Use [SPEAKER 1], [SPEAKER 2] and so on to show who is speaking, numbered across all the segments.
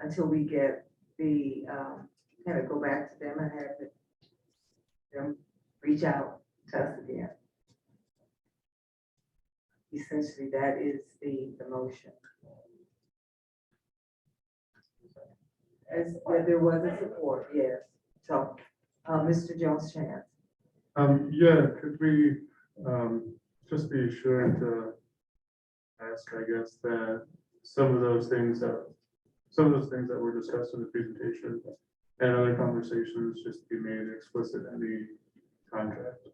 [SPEAKER 1] until we get the, um, kind of go back to them and have it- them reach out to us again. Essentially, that is the, the motion. As, there there was a support, yes. So, uh, Mr. Jones Chance,
[SPEAKER 2] Um, yeah, could we, um, just be sure to ask, I guess, that some of those things that, some of those things that were discussed in the presentation and other conversations just be made explicit in the contract.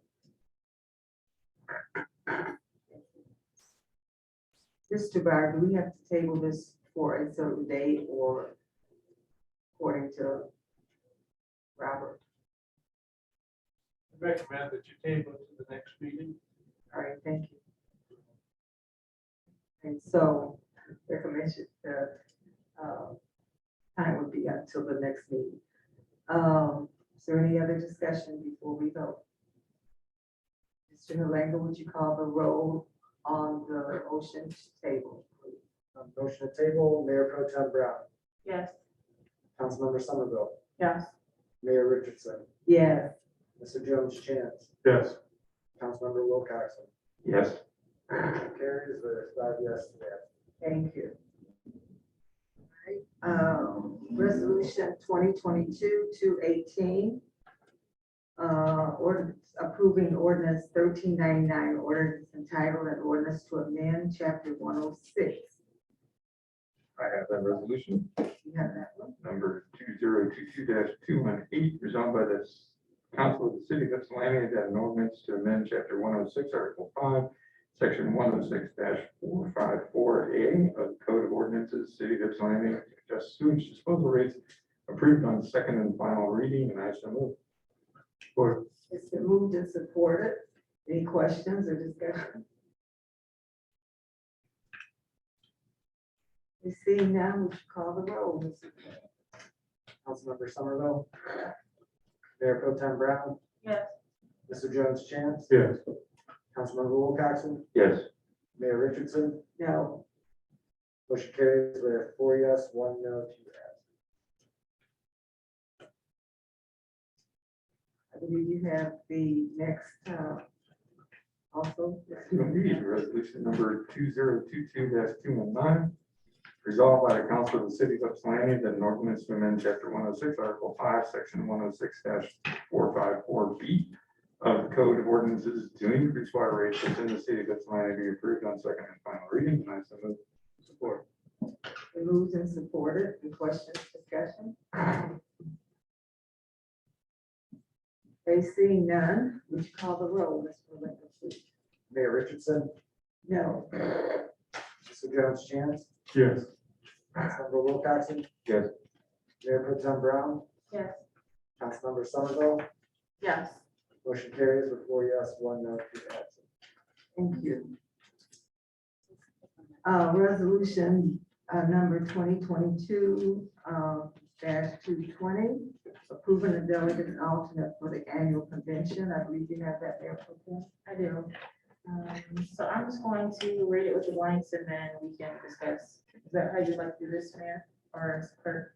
[SPEAKER 1] Mr. Byer, do we have to table this for a certain date or according to Robert?
[SPEAKER 3] Recommend that you table it to the next meeting.
[SPEAKER 1] All right, thank you. And so the commission, the um, time would be up till the next meeting. Um, Is there any other discussion before we vote? Mr. Halango, would you call the roll on the motion table? please?
[SPEAKER 4] Um, Motion to table, Mayor Pro Tem Brown,
[SPEAKER 5] Yes.
[SPEAKER 4] Councilmember Somerville,
[SPEAKER 5] Yes.
[SPEAKER 4] Mayor Richardson,
[SPEAKER 1] Yes.
[SPEAKER 4] Mr. Jones Chance,
[SPEAKER 2] Yes,
[SPEAKER 4] Councilmember Wilcoxen.
[SPEAKER 3] Yes.
[SPEAKER 4] Motion Carries with five yes to that.
[SPEAKER 1] Thank you. All right, um, Resolution twenty twenty-two, two eighteen. Uh, ordinance approving ordinance thirteen ninety-nine, ordinance entitled an ordinance to amend chapter one oh six.
[SPEAKER 6] I have that resolution,
[SPEAKER 1] You have that one?
[SPEAKER 6] number two zero two two two one eight, resolved by the s- council of the city of Ypsilanti that an ordinance to amend chapter one oh six, article five, section one oh six four five four A of the Code of Ordinances, City of Ypsilanti, just sewage disposal rates approved on second and final reading, and I so move.
[SPEAKER 2] or,
[SPEAKER 1] It's been moved and supported. Any questions or discussion? You see now, would you call the roll, Mr. Clerk?
[SPEAKER 4] Councilmember Somerville, Mayor Pro Tem Brown,
[SPEAKER 5] Yes.
[SPEAKER 4] Mr. Jones Chance,
[SPEAKER 2] yes,
[SPEAKER 4] Councilmember Wilcoxen,
[SPEAKER 6] Yes.
[SPEAKER 4] Mayor Richardson.
[SPEAKER 1] No.
[SPEAKER 4] Motion carries with four yes, one no, two absent.
[SPEAKER 1] I believe you have the next, uh, also.
[SPEAKER 6] Indeed, resolution number two zero two two two one nine. Resolved by the council of the city of Ypsilanti that an ordinance to amend chapter one oh six, article five, section one oh six four five four B of the code of ordinances to increase water rates within the city of Ypsilanti be approved on second and final reading. And I so move. Support.
[SPEAKER 1] Been Moved and supported, any questions, discussion? They see none, would you call the roll, Mr. Lincoln, please?
[SPEAKER 4] Mayor Richardson,
[SPEAKER 1] No.
[SPEAKER 4] Mr. Jones Chance,
[SPEAKER 2] yes.
[SPEAKER 4] Councilmember Wilcoxen.
[SPEAKER 6] Yes.
[SPEAKER 4] Mayor Pro Tem Brown,
[SPEAKER 5] Yes.
[SPEAKER 4] Councilmember Somerville,
[SPEAKER 5] Yes.
[SPEAKER 4] Motion carries with four yes, one no, two absent.
[SPEAKER 1] Thank you. Uh, resolution, uh, number twenty twenty-two, uh, dash two twenty, approving a delegate and alternate for the annual convention. I believe you have that there for them.
[SPEAKER 5] I do. Um, So I'm just going to read it with the blanks and then we can discuss. Is that how you'd like to do this, Mayor? Or as clerk?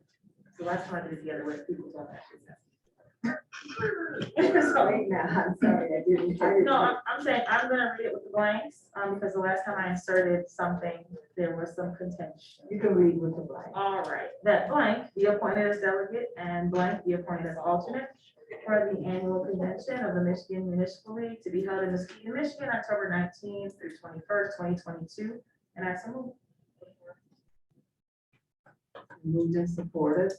[SPEAKER 5] So last time I did it the other way, people don't actually. know. Sorry.
[SPEAKER 1] Sorry, now, I'm sorry, I didn't. I didn't-
[SPEAKER 5] No, I'm, I'm saying, I'm gonna read it with the blanks, um, because the last time I inserted something, there was some contention.
[SPEAKER 1] You can read with the blank.
[SPEAKER 5] All right, that blank be appointed as delegate and blank be appointed as alternate for the annual convention of the Michigan Municipal League to be held in Muskegon, Michigan, October nineteenth through twenty-first, twenty twenty-two. And I so move.
[SPEAKER 1] Moved and supported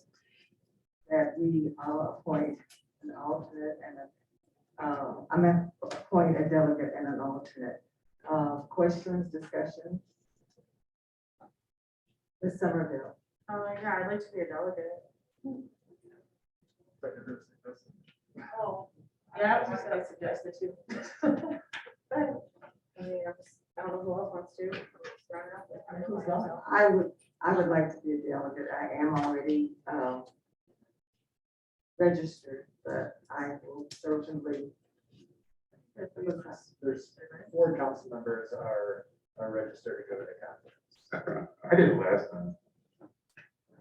[SPEAKER 1] that we uh, appoint an alternate and a, uh, I meant appoint a delegate and an alternate. Uh, Questions, discussion? Ms. Somerville,
[SPEAKER 5] Uh, yeah, I'd like to be a delegate. Oh. Yeah, I was just gonna suggest it too. But, I mean, I was- I don't know who else wants to. Who's else?
[SPEAKER 1] I would, I would like to be a delegate. I am already um, registered, but I will certainly,
[SPEAKER 4] There's four council members are, are registered to go to the conference.
[SPEAKER 6] I did it last time.